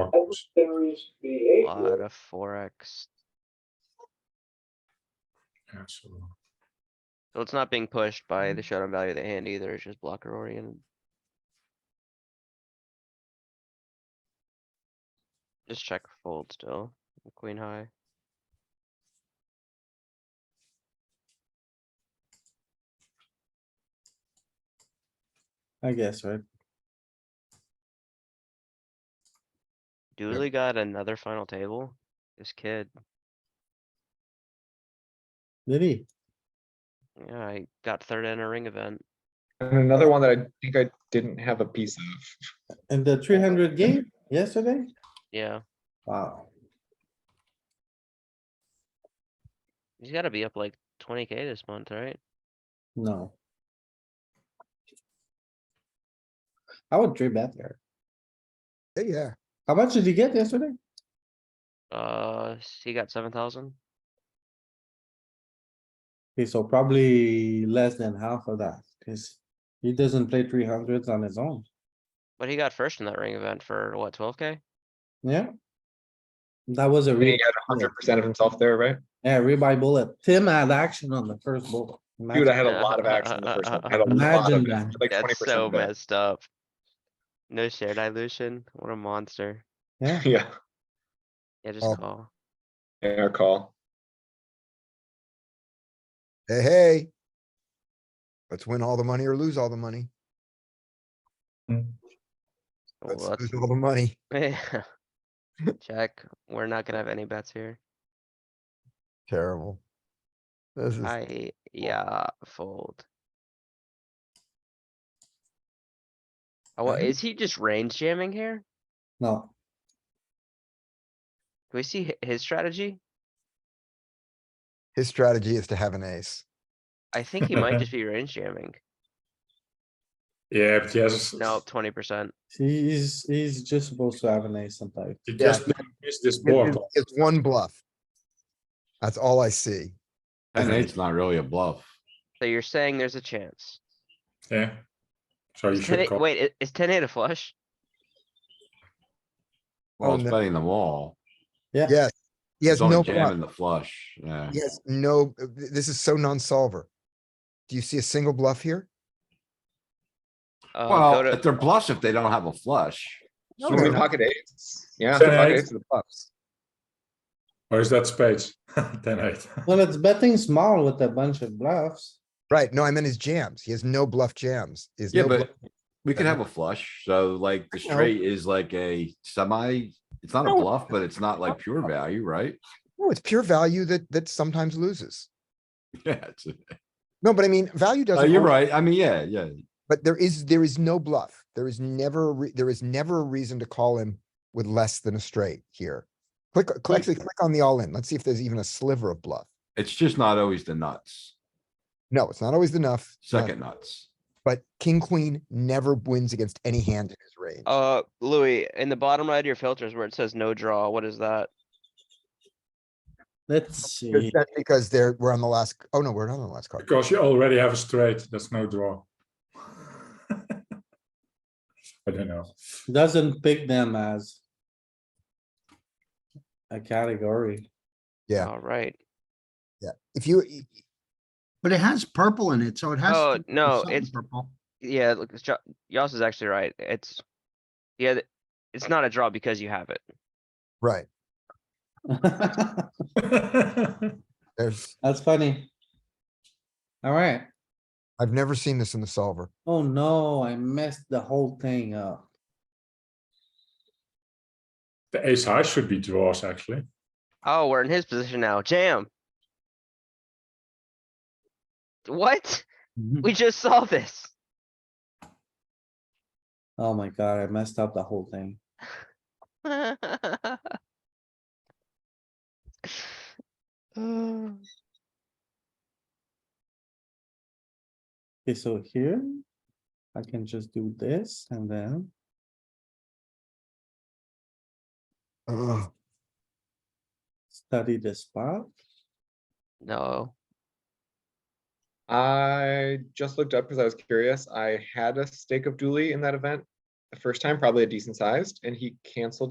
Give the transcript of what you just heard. fox. There's a behavior. lot of forex. Yeah, so So it's not being pushed by the showdown value of the hand either, it's just blocker oriented. Just check fold still, queen high. I guess, right? Dooley got another final table, this kid, Did he? yeah, he got third in a ring event. And another one that I think I didn't have a piece of. In the three hundred game yesterday? Yeah, Wow, he's gotta be up like twenty K this month, right? no. I would three bet there. Yeah, How much did you get yesterday? Uh, s- he got seven thousand, Okay, so probably less than half of that, cause he doesn't play three hundreds on his own, but he got first in that ring event for what, twelve K? yeah? That was a I mean, real, He had hundred percent of himself there, right? yeah, rebuy bullet. Tim had action on the first bullet. Dude, I had a lot of action in the first one. I had a lot Imagine of, that. like twenty That's so percent. messed up. No share dilution, what a monster. Yeah, Yeah, Yeah, just Oh. call. yeah, our call. hey, hey. Let's win all the money or lose all the money. Oh, Let's well, lose all the money. that's- Check, we're not gonna have any bets here. Terrible. This is, I, yeah, fold. Oh, well, Mhm. is he just range jamming here? no, Do we see hi- his strategy? his strategy is to have an ace. I think he might just be range jamming. Yeah, but he has. No, twenty percent. he's, he's just supposed to have an ace sometimes. He just missed this board. It's it's one bluff. That's all I see. Ten And eight's not really a bluff. So you're saying there's a chance. Yeah. So Oh, you Is 10 should eight- call. Wait, i- is ten eight a flush? Oh, Well, it's no. betting them all. Yeah. Yes, he has It's only no, jamming bluff. the flush, yeah. he has no, th- this is so non-solver. Do you see a single bluff here? Uh, go Well, to- if they're bluffs, if they don't have a flush, No, So many no. pocket eights. Yeah, Ten pocket eight. eights of the buffs. Or is that spades? Ten eight. Well, it's betting small with a bunch of bluffs. Right, no, I meant his jams. He has no bluff jams. He has yeah, no, bluff- but we could have a flush, so like the Uh-huh. I know. straight is like a semi. It's not a No. bluff, but it's not like pure value, right? no, it's pure value that, that sometimes loses. Yeah, it's, No, but I mean, value oh, doesn't. you're always- right, I mean, yeah, yeah, But there is, there is no bluff. There is never, a re- there is never a reason to call him with less than a straight here. Click, click, actually click on the all in. Let's see if there's even a sliver of bluff. it's just not always the nuts, No, it's not always enough. second nuts. But king, queen never wins against any hand in his range. Uh, Louis, in the bottom right of your filters where it says no draw, what is that? Let's Because- see. That's because they're, we're on the last, oh no, we're not on the last card. Because you already have a straight, that's no draw. I don't know. Doesn't pick them as. A category. Yeah. Alright, If you, But it has purple in it, so it has. Oh, to be no, something it's- Purple. yeah, look, it's Jo- Yoss is actually right, it's. Yeah, th- it's not a draw because you have it. right, there's, That's funny. Alright, I've never seen this in the solver. oh no, I messed the whole thing up. The ace high should be draws, actually. Oh, we're in his position now, jam. What? We just saw this. Oh my god, I messed up the whole thing. Oh. Okay, so here. I can just do this and then, Ugh. study the spot. No, I just looked up because I was curious. I had a stake of Dooley in that event the first time, probably a decent sized, and he canceled it.